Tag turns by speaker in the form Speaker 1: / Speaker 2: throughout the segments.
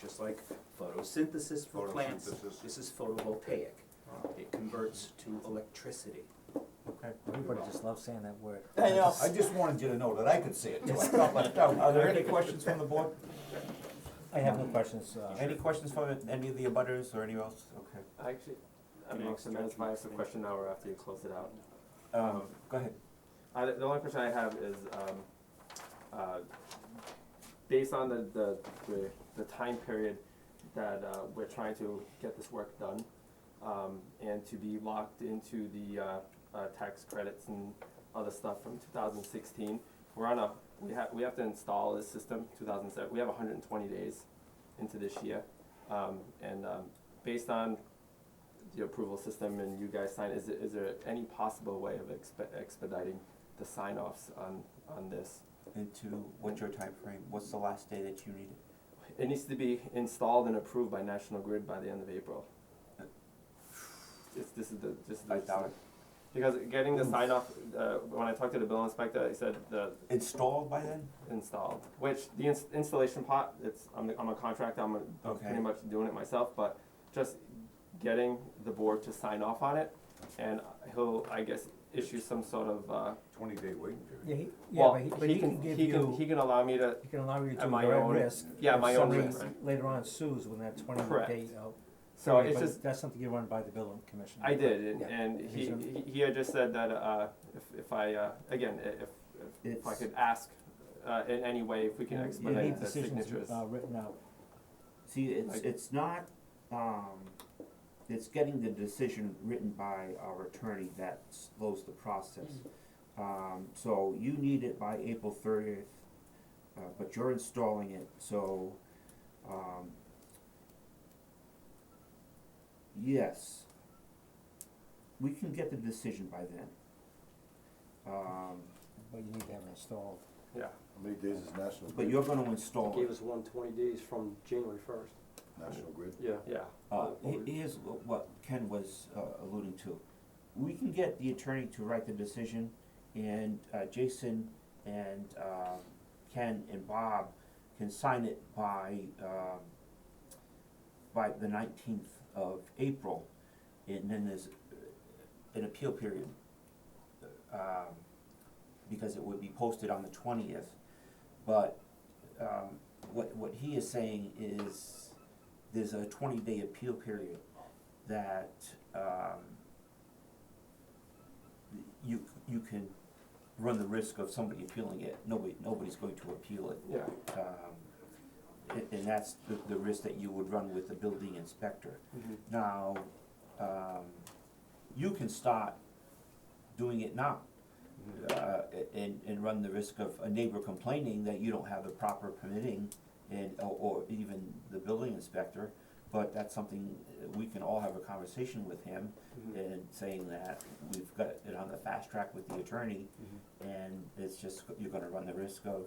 Speaker 1: just like photosynthesis for plants.
Speaker 2: Photosynthesis.
Speaker 1: This is photovoltaic.
Speaker 2: Oh.
Speaker 1: It converts to electricity.
Speaker 3: Okay. Everybody just loves saying that word.
Speaker 4: I
Speaker 5: uh,
Speaker 4: know, I just wanted you to know that I could say it too, I felt left out. Are there any questions from the board?
Speaker 3: I have no questions, uh,
Speaker 4: Any questions from any of the abutters or anyone else? Okay.
Speaker 6: I actually, I
Speaker 1: Can I
Speaker 6: mean, so
Speaker 1: stretch
Speaker 6: that's my
Speaker 1: my
Speaker 6: extra
Speaker 1: thing?
Speaker 6: question now or after you close it out.
Speaker 4: Um, go ahead.
Speaker 6: I, the only question I have is, um, uh, based on the, the, the, the time period that, uh, we're trying to get this work done, um, and to be locked into the, uh, uh, tax credits and other stuff from two thousand sixteen, we're on a, we have, we have to install this system, two thousand seven, we have hundred and twenty days into this year. Um, and, um, based on the approval system and you guys sign, is, it- is there any possible way of expe- expediting the sign offs on, on this?
Speaker 4: Into what's your time frame? what's the last day that you need it?
Speaker 6: It needs to be installed and approved by National Grid by the end of April. It's, this is the, this is the.
Speaker 4: I doubt it.
Speaker 6: Because getting
Speaker 3: Hmm.
Speaker 6: the sign off, uh, when I talked to the bill inspector, he said the
Speaker 4: Installed by then?
Speaker 6: installed, which the ins- installation part, it's, I'm, I'm a contractor, I'm, a- I'm
Speaker 4: Okay.
Speaker 6: pretty much doing it myself, but just getting the board to sign off on it, and he'll, I guess, issue some sort of, uh,
Speaker 2: Twenty day waiting period.
Speaker 3: yeah, he, yeah,
Speaker 6: well,
Speaker 3: but he, but he can give
Speaker 6: he can, he
Speaker 3: you,
Speaker 6: can allow me to,
Speaker 3: he can allow you to
Speaker 6: at my
Speaker 3: your own
Speaker 6: own-
Speaker 3: risk.
Speaker 6: yeah,
Speaker 3: if
Speaker 6: my own
Speaker 3: somebody
Speaker 6: risk, right?
Speaker 3: Later on sues when that twenty
Speaker 6: Correct.
Speaker 3: day, uh,
Speaker 6: so
Speaker 3: period,
Speaker 6: it's
Speaker 3: but
Speaker 6: just,
Speaker 3: that's something you run by the billing commission.
Speaker 6: I did, and,
Speaker 3: Yeah.
Speaker 6: and he,
Speaker 3: Reason.
Speaker 6: he- he had just said that, uh, if, if I, uh, again, i- if, if, if I
Speaker 4: It's-
Speaker 6: could ask, uh, in any way, if we can expedite the signatures.
Speaker 3: You need decisions, uh, written out.
Speaker 5: See, it's,
Speaker 6: Like-
Speaker 5: it's not, um, it's getting the decision written by our attorney that slows the process.
Speaker 3: Mm.
Speaker 5: Um, so you need it by April thirtieth, uh, but you're installing it, so, um, yes, we can get the decision by then. Um,
Speaker 3: but you need to have it installed.
Speaker 6: Yeah,
Speaker 2: How many days is National
Speaker 5: but
Speaker 2: Grid,
Speaker 5: you're gonna install
Speaker 7: Gave
Speaker 5: it.
Speaker 7: us one twenty days from January first.
Speaker 2: National Grid?
Speaker 7: Yeah.
Speaker 6: yeah,
Speaker 5: Uh, he- here's wh- what Ken was uh, alluding to. We can get the attorney to write the decision, and uh, Jason and um, Ken and Bob can sign it by, um, by the nineteenth of April. And then there's uh, an appeal period, um, because it would be posted on the twentieth. But um, what, what he is saying is, there's a twenty-day appeal period that, um, you, you can run the risk of somebody appealing it, nobody, nobody's going to appeal it.
Speaker 6: yeah.
Speaker 5: Um, and, and that's the, the risk that you would run with the building inspector.
Speaker 3: Mm-hmm,
Speaker 5: Now, um, you can start doing it now. Uh, and, and run the risk of a neighbor complaining that you don't have the proper permitting and, or, or even the building inspector. But that's something, uh, we can all have a conversation with him
Speaker 3: mm-hmm.
Speaker 6: Mhm.
Speaker 5: and saying that we've got it on the fast track with the attorney. And it's just, you're gonna run the risk of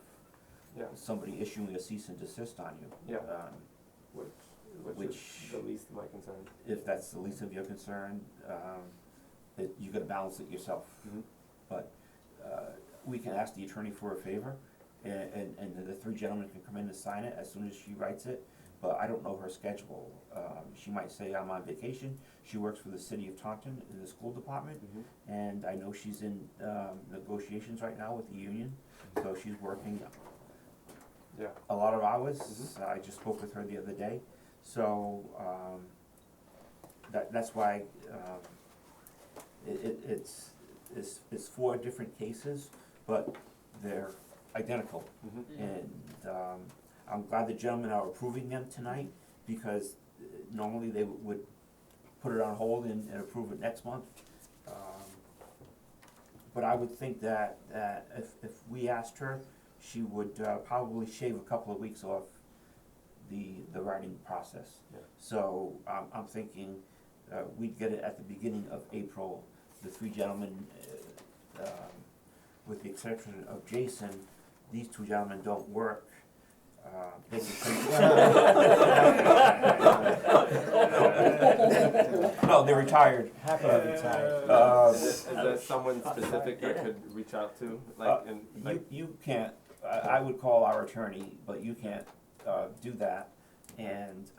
Speaker 6: Yeah,
Speaker 5: somebody issuing a cease and desist on you.
Speaker 6: Yeah.
Speaker 5: Um,
Speaker 6: which, which is
Speaker 5: Which-
Speaker 6: the least of my concern.
Speaker 5: if that's the least of your concern, um, it, you gotta balance it yourself.
Speaker 6: Mhm.
Speaker 3: Mm-hmm,
Speaker 5: But, uh, we can ask the attorney for a favor, and, and, and the three gentlemen can come in and sign it as soon as she writes it, but I don't know her schedule. Um, she might say, I'm on vacation, she works for the city of Taunton in the school department,
Speaker 3: mm-hmm.
Speaker 5: and I know she's in, um, negotiations right now with the union, so she's working
Speaker 6: Yeah,
Speaker 5: a lot of hours. Uh,
Speaker 6: Mhm.
Speaker 5: I just spoke with her the other day, so um, that that's why um, it, it, it's it's it's four different cases, but they're identical.
Speaker 6: Mhm.
Speaker 5: And um, I'm glad the gentlemen are approving them tonight because uh, normally they would put it on hold and, and approve it next month. Um, but I would think that, that if, if we asked her, she would uh, probably shave a couple of weeks off the, the writing process.
Speaker 6: Yeah.
Speaker 5: So I'm, I'm thinking uh, we'd get it at the beginning of April. The three gentlemen, uh, um, with the exception of Jason, these two gentlemen don't work. Uh, They can No, they're retired.
Speaker 3: Happy to retire.
Speaker 5: Uh,
Speaker 6: Is there- is there someone specific I could reach out to, like, and, like,
Speaker 5: You, you can't, I, I would call our attorney, but you can't, uh, do that. and,